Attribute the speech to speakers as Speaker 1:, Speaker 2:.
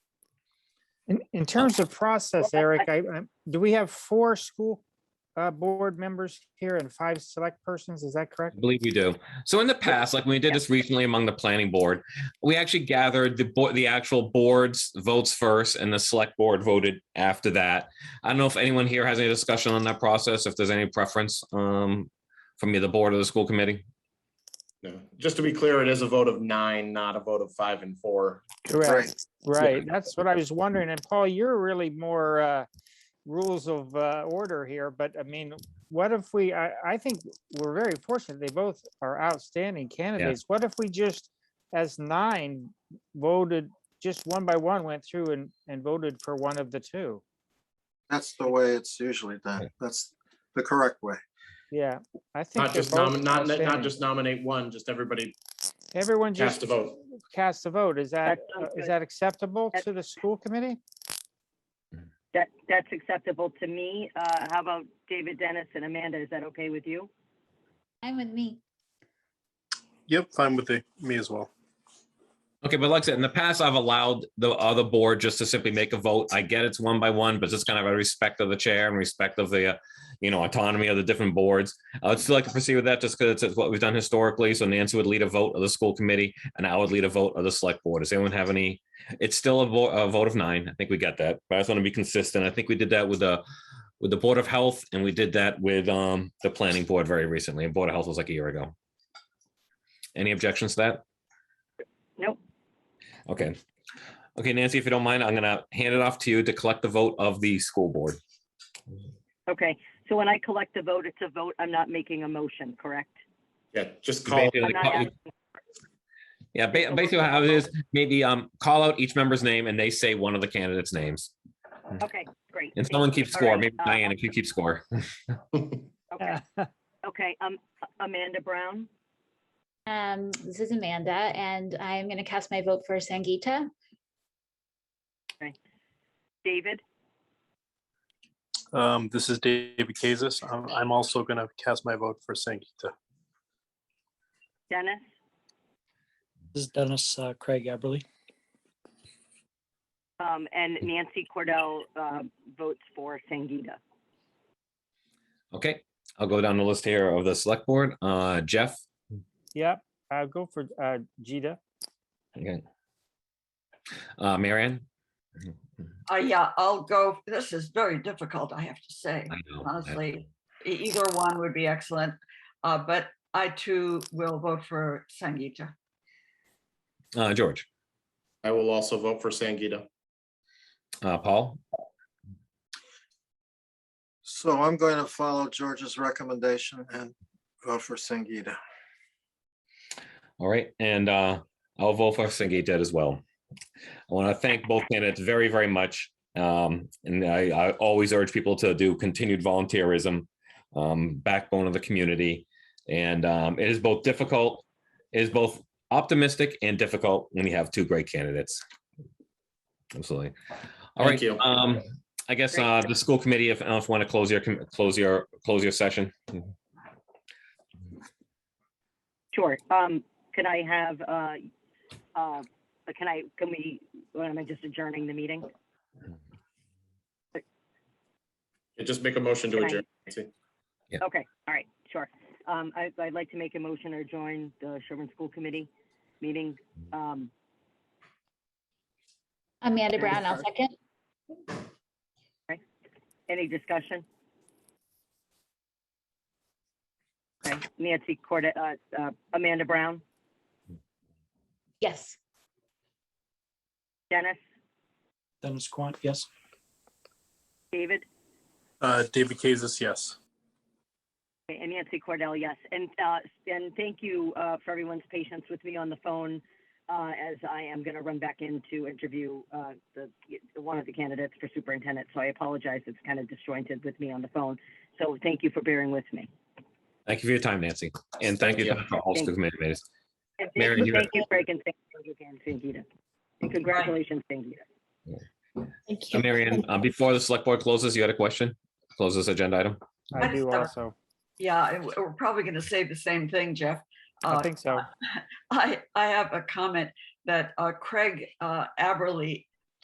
Speaker 1: In, in terms of process, Eric, I, I- do we have four school uh, board members here and five select persons? Is that correct?
Speaker 2: I believe we do. So in the past, like when we did this recently among the planning board, we actually gathered the board, the actual board's votes first and the select board voted after that. I don't know if anyone here has any discussion on that process, if there's any preference um from either board or the school committee.
Speaker 3: No, just to be clear, it is a vote of nine, not a vote of five and four.
Speaker 1: Correct, right. That's what I was wondering. And Paul, you're really more uh, rules of uh, order here, but I mean, what if we, I, I think we're very fortunate. They both are outstanding candidates. What if we just, as nine, voted, just one by one, went through and, and voted for one of the two?
Speaker 4: That's the way it's usually done. That's the correct way.
Speaker 1: Yeah, I think.
Speaker 3: Not
Speaker 1: they're
Speaker 3: just
Speaker 1: both
Speaker 3: nominate, not, not
Speaker 1: outstanding.
Speaker 3: just nominate one, just everybody
Speaker 1: Everyone just.
Speaker 3: cast a vote.
Speaker 1: Cast a vote. Is that,
Speaker 5: That sounds
Speaker 1: uh, is
Speaker 5: good.
Speaker 1: that acceptable
Speaker 5: That-
Speaker 1: to the school committee?
Speaker 5: That, that's acceptable to me. Uh, how about David Dennis and Amanda? Is that okay with you?
Speaker 6: I'm with me.
Speaker 7: Yep, fine with the, me as well.
Speaker 2: Okay, but like I said, in the past, I've allowed the other board just to simply make a vote. I get it's one by one, but just kind of a respect of the chair and respect of the, uh, you know, autonomy of the different boards. I would still like to proceed with that just because it's what we've done historically. So Nancy would lead a vote of the school committee and I would lead a vote of the select board. Does anyone have any? It's still a vo- a vote of nine. I think we got that, but I just want to be consistent. I think we did that with the, with the Board of Health and we did that with, um, the planning board very recently. And Board of Health was like a year ago. Any objections to that?
Speaker 5: Nope.
Speaker 2: Okay. Okay, Nancy, if you don't mind, I'm gonna hand it off to you to collect the vote of the school board.
Speaker 5: Okay. So when I collect the vote, it's a vote. I'm not making a motion, correct?
Speaker 3: Yeah, just call.
Speaker 5: I'm not
Speaker 2: Basically,
Speaker 5: asking-
Speaker 2: Yeah, ba- basically how it is, maybe um, call out each member's name and they say one of the candidates' names.
Speaker 5: Okay, great.
Speaker 2: And someone keeps
Speaker 5: All
Speaker 2: score,
Speaker 5: right,
Speaker 2: maybe
Speaker 5: uh,
Speaker 2: Diane, if you keep score.
Speaker 5: Okay, okay. Um, Amanda Brown,
Speaker 6: Um, this is Amanda, and I'm gonna cast my vote for Sangita.
Speaker 5: David,
Speaker 7: Um, this is David Kazis. I'm, I'm also gonna cast my vote for Sankita.
Speaker 5: Dennis,
Speaker 8: This is Dennis uh, Craig Eberly.
Speaker 5: um, and Nancy Cordell, uh, votes for Sangita.
Speaker 2: Okay, I'll go down the list here of the select board. Uh, Jeff,
Speaker 1: Yep, I'll go for uh, Gita.
Speaker 2: okay. Uh, Marion?
Speaker 9: Uh, yeah, I'll go, this is very difficult, I have to say,
Speaker 2: I know.
Speaker 9: honestly. E- Either one would be excellent, uh, but I too will vote for Sangita.
Speaker 2: Uh, George,
Speaker 3: I will also vote for Sangita.
Speaker 2: uh, Paul,
Speaker 4: So I'm going to follow George's recommendation and vote for Singita.
Speaker 2: All right, and uh, I'll vote for Sangeeta as well. I want to thank both candidates very, very much. Um, and I, I always urge people to do continued volunteerism, um, backbone of the community. And um, it is both difficult, it is both optimistic and difficult when you have two great candidates. Absolutely. All right.
Speaker 3: Thank you.
Speaker 2: Um, I guess uh, the school committee, if, if want to close your, com- close your, close your session.
Speaker 5: Sure. Um, can I have, uh, uh, can I, can we, what am I just adjourning the meeting?
Speaker 3: Just make a motion to
Speaker 5: Can I-
Speaker 3: adjourn. Nancy.
Speaker 5: Okay, all right, sure. Um, I, I'd like to make a motion or join the Sherman School Committee meeting. Um,
Speaker 6: Amanda Brown, I'll
Speaker 5: sorry.
Speaker 6: second.
Speaker 5: any discussion? Okay, Nancy Corda, uh, uh, Amanda Brown,
Speaker 6: Yes.
Speaker 5: Dennis,
Speaker 8: Dennis Quant, yes.
Speaker 5: David,
Speaker 7: Uh, David Kazis, yes.
Speaker 5: and Nancy Cordell, yes. And, uh, and thank you, uh, for everyone's patience with me on the phone, uh, as I am gonna run back in to interview, uh, the, one of the candidates for superintendent. So I apologize, it's kind of disjointed with me on the phone. So thank you for bearing with me.
Speaker 2: Thank you for your time, Nancy. And thank you for all
Speaker 5: Thank
Speaker 2: school committee members.
Speaker 5: And
Speaker 2: Mary,
Speaker 5: Thank
Speaker 2: you
Speaker 5: you,
Speaker 2: have-
Speaker 5: thank you, Craig, and thank you again, Sangita. And congratulations, Sangita.
Speaker 2: Uh, Marion, uh, before the select board closes, you had a question? Close this agenda item?
Speaker 1: I
Speaker 9: Let's
Speaker 1: do
Speaker 9: start.
Speaker 1: also.
Speaker 9: Yeah, I- we're probably going to say the same thing, Jeff.
Speaker 1: I
Speaker 9: Uh,
Speaker 5: Oh,
Speaker 1: think so.
Speaker 9: I, I have a comment that uh, Craig uh, Aberly